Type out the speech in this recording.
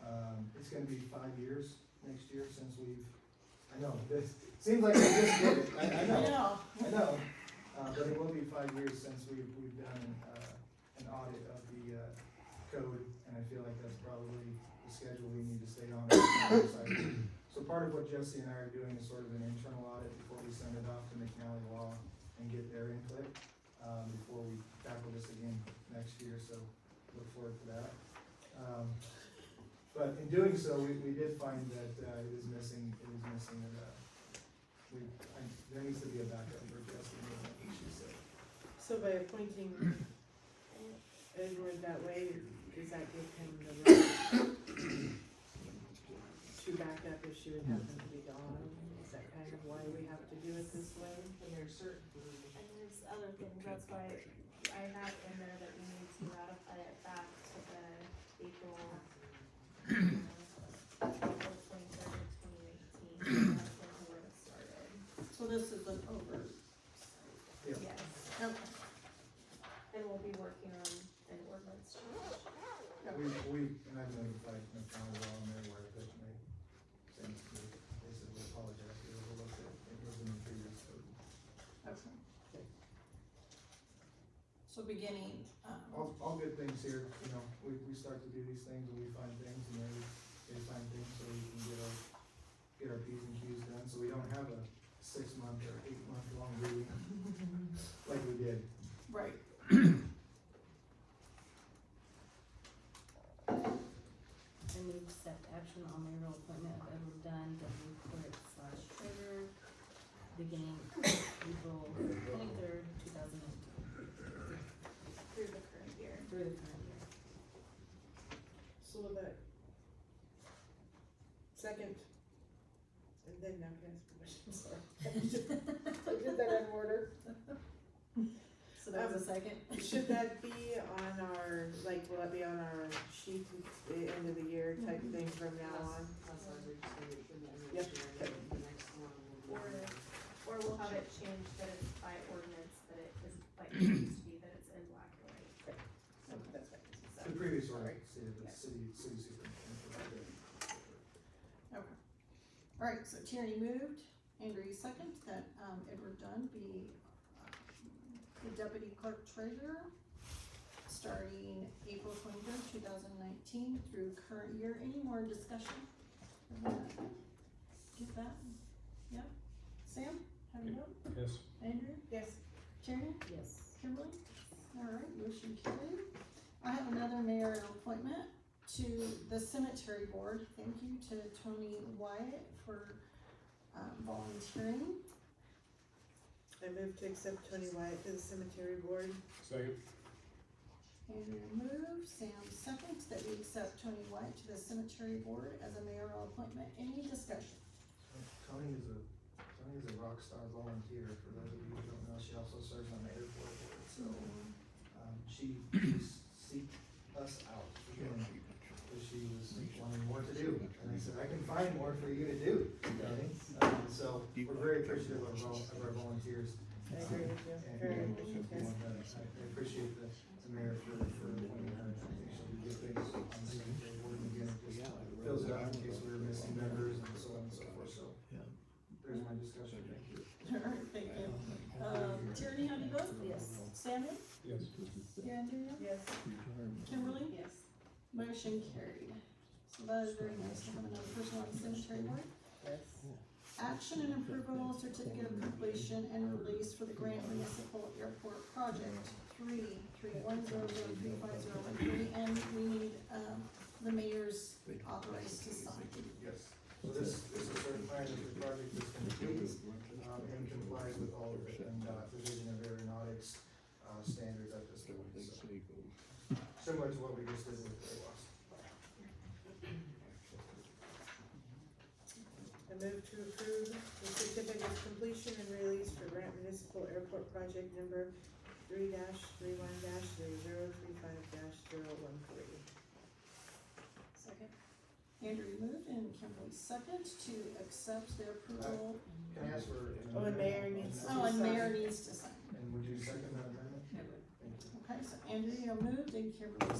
Um, gonna be five years next year since we've, I know, this, seems like we just did it, I, I know, I know. Uh, but it will be five years since we've, we've done, uh, an audit of the, uh, code, and I feel like that's probably the schedule we need to stay on. So part of what Jesse and I are doing is sort of an internal audit before we send it off to McNally Law and get their input, um, before we tackle this again next year, so look forward to that. Um, But in doing so, we, we did find that, uh, it is missing, it is missing, uh, we, I, there needs to be a backup for Jesse, and what she said. So by appointing Edward that way, does that give him the right to back up if she would happen to be gone? Is that kind of why we have to do it this way? And there's certain, And there's other things, that's why I have in there that we need to ratify it back to the April, um, April twenty-third, twenty eighteen, that's when the work started. So this is an over, Yeah. Yes, okay. And we'll be working on an ordinance change. We, we, and I've notified McDonald Law and their work, that they, since we, they said we apologize, we overlooked it, it was in the previous code. so beginning, um, All, all good things here, you know, we, we start to do these things, and we find things, and they, they find things, so we can get our, get our Ps and Qs done, so we don't have a six-month or eight-month-long meeting like we did. right, I move to accept action on the real appointment of Edward Dunn, deputy clerk slash treasurer, beginning April twenty-third, two thousand nineteen, through the current year. through the current year. So will that second, and then now can I ask permission, sorry. I Did that out of order? So that was a second? Should that be on our, like, will that be on our sheet at the end of the year type Mm-hmm. thing from now on? that's our big thing, and then Yep. next year, and then the next one will Or, be. or we'll have it changed that it's by ordinance, that it is like it used to be, that it's in black and white. That's right. So, The previous one, said the city, city superintendent. Alright, so Tierney moved, Andrew second, that, um, Edward Dunn be uh, the deputy clerk treasurer, starting April twenty-third, two thousand nineteen, through current year, any more discussion? on that? Get that, yeah, Sam, have you vote? Yes. Andrew, Yes. Tierney? Yes. Kimberly? Alright, motion carried. I have another mayor appointment to the cemetery board. Thank you to Tony Wyatt for um, volunteering. I move to accept Tony Wyatt to the cemetery board. Second. Andrew moved, Sam seconds, that we accept Tony Wyatt to the cemetery board as a mayoral appointment. Any discussion? Tony is a, Tony is a rock star volunteer, for those of you who don't know, she also serves on the airport board, so, um, she seeked us out. again, Cause she was wanting more to do, and I said, I can find more for you to do, Tony, um, so, we're very appreciative of our, of our volunteers. I agree with you. And, Very and, much, yes. uh, I appreciate the, the mayor for, for appointing her, I think she'll do good things on the cemetery board, and again, it just fills it out in case we were missing members and so on and so forth, so. There's my discussion, thank you. Alright, thank you. Um, Tierney, how do you vote? Yes. Samuel? Yes. Andrew? Yes. Kimberly? Yes. Motion carried. So that is very nice to have another person on the cemetery board. Yes. Action and approval of certificate of completion and release for the Grant Municipal Airport Project three, three one zero zero three five zero one three, and we need, um, the mayor's authorized to sign. Yes, so this, this is certified that the project is complete, um, and complies with all of the, and, uh, division of aeronautics, uh, standards at this point, so. Similar to what we just did with the loss. I move to approve the certificate of completion and release for Grant Municipal Airport Project Number three dash three one dash three zero three five dash zero one three. Second. Andrew moved and Kimberly second to accept the approval. Can I ask for? an Oh, and mayor amendment on needs- that? Oh, and mayor needs to sign. And would you second that amendment? Thank you. Okay, so Andrew moved and Kimberly